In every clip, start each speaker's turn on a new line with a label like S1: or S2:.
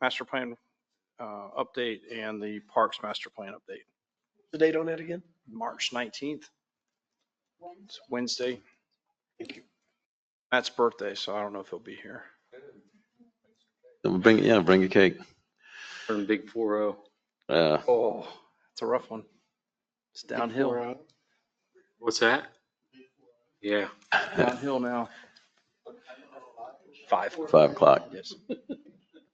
S1: master plan uh, update and the parks master plan update,
S2: The date on that again?
S1: March 19th. It's Wednesday.
S2: Thank you.
S1: Matt's birthday, so I don't know if he'll be here.
S3: Then Bring, yeah, bring a cake.
S4: From Big Four O.
S3: Uh,
S1: Oh, it's a rough one. It's downhill,
S2: Or, uh,
S4: What's that? Yeah.
S1: downhill now. Five.
S3: five o'clock.
S1: Yes,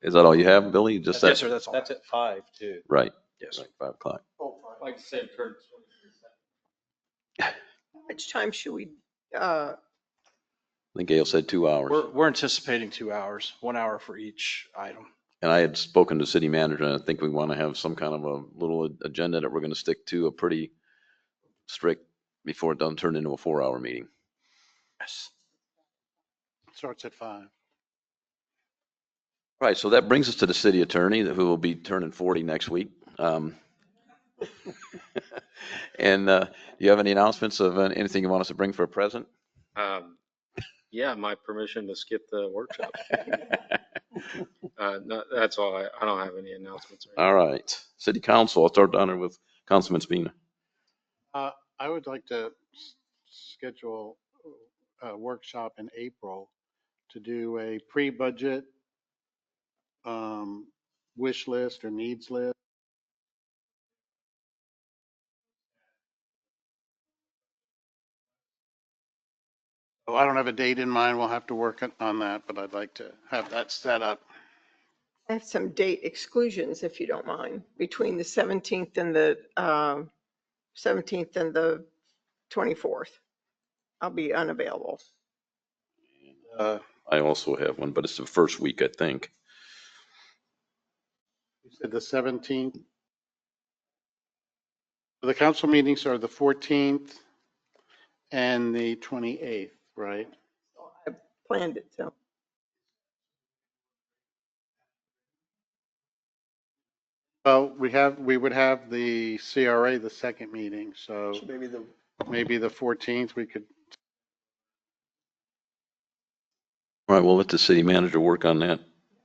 S3: Is that all you have, Billy? Just
S1: yes,
S3: that?
S1: sir, that's all.
S5: That's at five too.
S3: Right,
S1: Yes.
S3: right, five o'clock.
S4: Like I said, turn.
S6: How much time should we, uh,
S3: I think Gail said two hours.
S1: We're, we're anticipating two hours, one hour for each item.
S3: And I had spoken to city manager and I think we want to have some kind of a little agenda that we're going to stick to a pretty strict before it doesn't turn into a four hour meeting.
S1: Yes.
S2: Starts at five.
S3: Right, so that brings us to the city attorney, who will be turning 40 next week. Um, And uh, do you have any announcements of uh, anything you want us to bring for a present?
S4: Um, yeah, my permission to skip the workshop. Uh, no, that's all. I, I don't have any announcements. or anything.
S3: All right, city council, I'll start down there with Councilman Spina.
S7: I would like to s- schedule a workshop in April to do a pre-budget um, wish list or needs list. Oh, I don't have a date in mind. We'll have to work on- on that, but I'd like to have that set up.
S6: I have some date exclusions, if you don't mind, between the 17th and the, um, 17th and the 24th. I'll be unavailable.
S7: Uh,
S3: I also have one, but it's the first week, I think.
S7: You said the 17th? The council meetings are the 14th and the 28th, right?
S6: Planned it, so.
S7: Well, we have, we would have the CRA, the second meeting, so
S2: So maybe the,
S7: maybe the 14th, we could,
S3: All right, we'll let the city manager work on that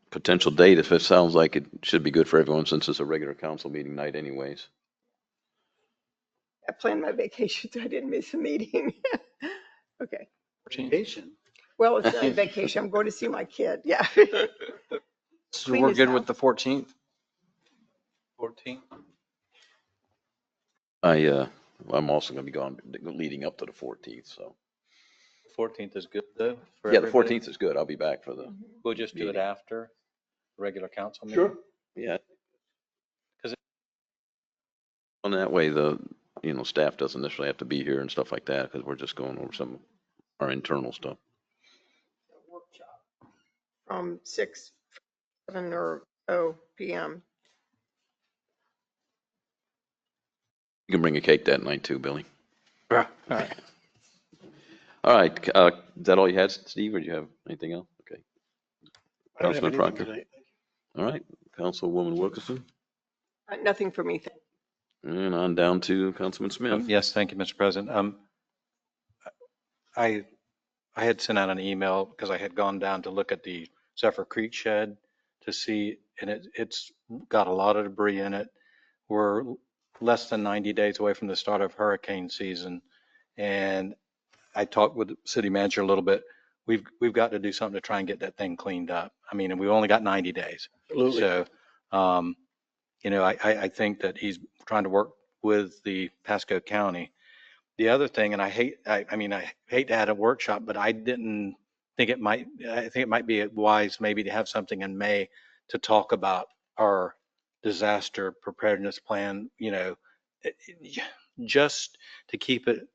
S3: potential date if it sounds like it should be good for everyone since it's a regular council meeting night anyways.
S6: I planned my vacation, so I didn't miss a meeting. Okay.
S7: vacation.
S6: Well, it's not a vacation. I'm going to see my kid. Yeah.
S1: So
S6: Clean
S1: we're
S6: this
S1: good
S6: out.
S1: with the 14th?
S5: Fourteen.
S3: I, uh, I'm also going to be gone leading up to the 14th, so.
S5: Fourteenth is good though. for
S3: Yeah, the
S5: everybody.
S3: 14th is good. I'll be back for the,
S5: We'll just do it
S3: meeting.
S5: after the regular council meeting.
S2: sure.
S3: yeah.
S5: 'Cause it-
S3: And that way, the, you know, staff doesn't necessarily have to be here and stuff like that, because we're just going over some, our internal stuff.
S6: From 6, 7 or 0 PM.
S3: You can bring a cake that night too, Billy.
S1: Yeah. All right.
S3: All right, uh, is that all you had, Steve, or do you have anything else? Okay,
S2: I don't have
S3: Councilman
S2: anything
S3: Proctor.
S2: tonight.
S3: all right, Councilwoman Wilkerson,
S6: Uh, Nothing for me. thank-
S3: and on down to Councilman
S5: Um,
S3: Smith.
S5: Yes, thank you, Mr. President. Um, I, I had sent out an email because I had gone down to look at the Zephyr Creek shed to see, and it, it's got a lot of debris in it. We're less than 90 days away from the start of hurricane season. And I talked with the city manager a little bit. We've, we've got to do something to try and get that thing cleaned up. I mean, and we've only got 90 days.
S2: Absolutely.
S5: So, um, you know, I, I, I think that he's trying to work with the Pasco County. The other thing, and I hate, I, I mean, I hate to add a workshop, but I didn't think it might, I think it might be wise maybe to have something in May to talk about our disaster preparedness plan, you know, it- it- just to keep it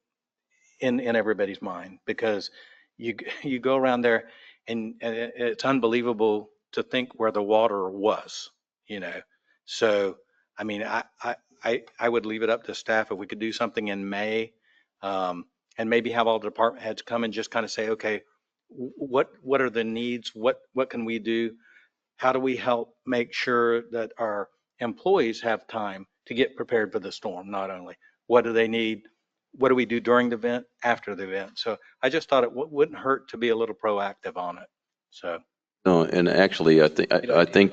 S5: in, in everybody's mind, because you, you go around there and, and it- it's unbelievable to think where the water was, you know? So, I mean, I, I, I, I would leave it up to staff if we could do something in May. Um, and maybe have all the department heads come and just kind of say, okay, wh- what, what are the needs? What, what can we do? How do we help make sure that our employees have time to get prepared for the storm? Not only, what do they need? What do we do during the event, after the event? So I just thought it wou- wouldn't hurt to be a little proactive on it. So.
S3: No, and actually, I think, I I think